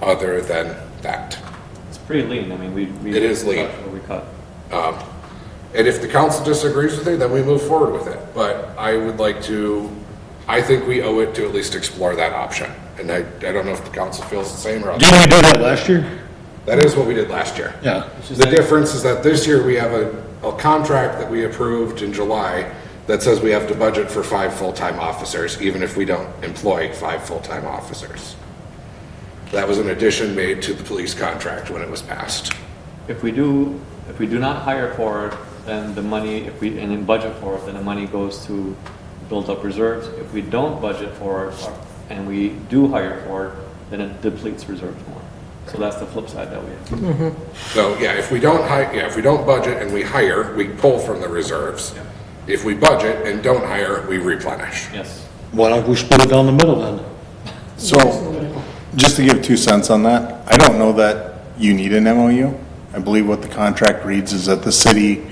other than that. It's pretty lean, I mean, we. we It is lean. cut what We cut, And if the council disagrees with it, then we move forward with it. But I would like to, I think we owe it to at least explore that option. And I, I don't know if the council feels the same or Didn't otherwise. we do that last year? That is what we did last year. Yeah. The difference is that this year we have a, a contract that we approved in July that says we have to budget for five full-time officers, even if we don't employ five full-time officers. That was an addition made to the police contract when it was passed. if we do, if we do not hire for it, then the money, if we, and then budget for it, then the money goes to build up reserves. If we don't budget for it, or- and we do hire for it, then it depletes reserves more. So that's the flip side that we have. So, yeah, if we don't hi, yeah, if we don't budget and we hire, we pull from the reserves. If we budget and don't hire, we replenish. Yes. Why don't we split it down the middle then? So, just to give two cents on that, I don't know that you need an MOU. I believe what the contract reads is that the city,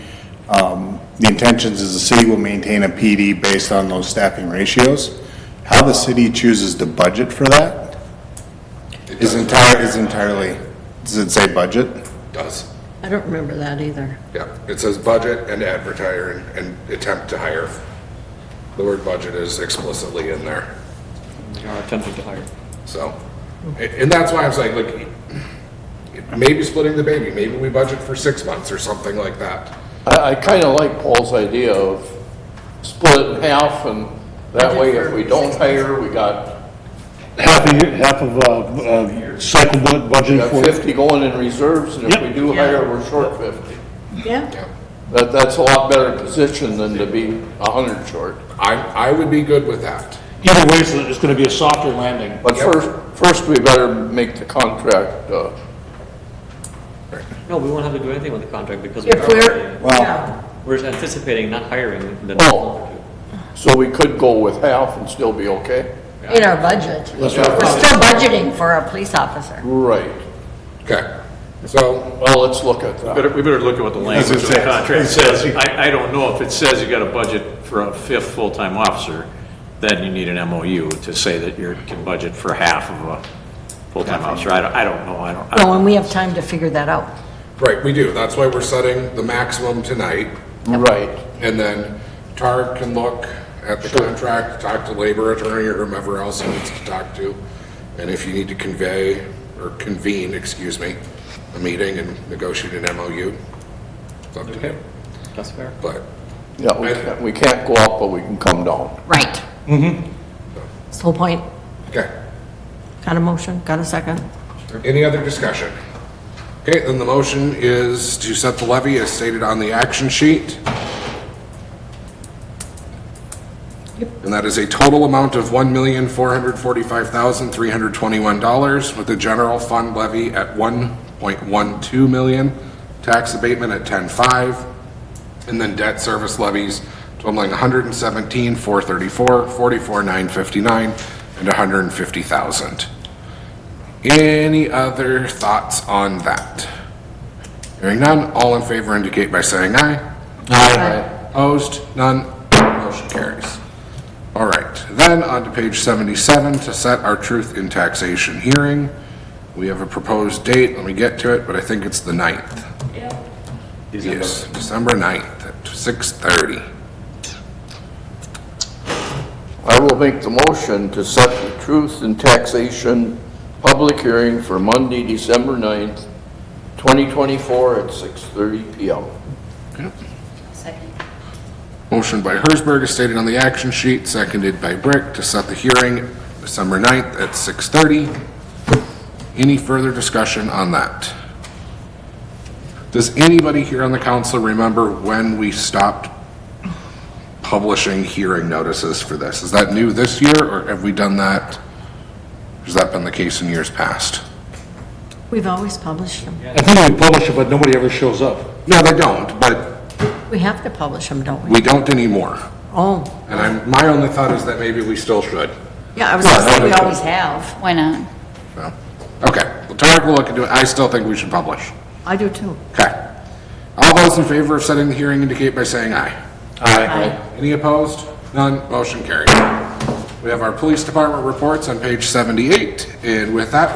um, the intentions is the city will maintain a PD based on those staffing ratios. How the city chooses to budget for that It is does- entire, is entirely, does it say budget? Does, I don't remember that either. yeah. It says budget and advertise and, and attempt to hire. The word budget is explicitly in there. We are attempting to hire. So, a- and that's why I was like, look, maybe splitting the baby, maybe we budget for six months or something like that. I, I kind of like Paul's idea of split it in half, and that way if we don't hire, we got Half a year, half of, uh, uh, cycle bu- we budget got for it. 50 going in reserves, and if we Yep. do hire, we're short 50. Yeah. Yeah. That, that's a lot better position than to be 100 short. I, I would be good with that. Either way, it's, it's gonna be a softer landing. But Yep. first, first we better make the contract, uh, No, we won't have to do anything with the contract because we are If we're, hiring. yeah, We're just anticipating not hiring the. Oh. so we could go with half and still be okay? in our budget. We're That's what I thought. still budgeting for our police officer. Right. Okay, so, Well, let's look at that. Better, we better look at what the As it language of the says. contract It says. says. I, I don't know if it says you got a budget for a fifth full-time officer, then you need an MOU to say that you can budget for half of a full-time officer. I don't, I don't know, I don't. I don't- Well, and we have time to figure that out. right, we do. That's why we're setting the maximum tonight. Right. And then Tarek can look at the contract, talk to labor attorney or whomever else he needs to talk to. And if you need to convey or convene, excuse me, a meeting and negotiate an MOU, it's up to you. That's fair. But Yeah, we can't, we can't go up, but we can come down. Right. Mm-hmm. That's the whole point. Okay, Got a motion, got a second? any other discussion? Okay, then the motion is to set the levy as stated on the action sheet. And that is a total amount of $1,445,321 with a general fund levy at 1.12 million, tax abatement at 10.5, and then debt service levies totaling 117,434, 44,959, and 150,000. Any other thoughts on that? Hearing none, all in favor indicate by saying aye. Aye. Opposed? None. Motion carries. All right, then on to page 77 to set our truth in taxation hearing. We have a proposed date, let me get to it, but I think it's the 9th. Yes, December 9th at 6:30. I will make the motion to set the truth and taxation public hearing for Monday, December 9th, 2024 at 6:30 PM. Motion by Hersberg is stated on the action sheet, seconded by Brick to set the hearing December 9th at 6:30. Any further discussion on that? Does anybody here on the council remember when we stopped publishing hearing notices for this? Is that new this year, or have we done that? Has that been the case in years past? We've always published them. I think we publish it, but nobody ever shows up. No, they don't, but We have to publish them, don't we? we don't anymore. Oh, And I'm, my only thought is that maybe we still should. yeah, I was gonna say, we always have. Why not? So, Okay, well, Tarek will look into it. I still think we should publish. I do too. Okay. All those in favor of setting the hearing indicate by saying aye. Aye. Any opposed? None. Motion carried. We have our police department reports on page 78, and with that,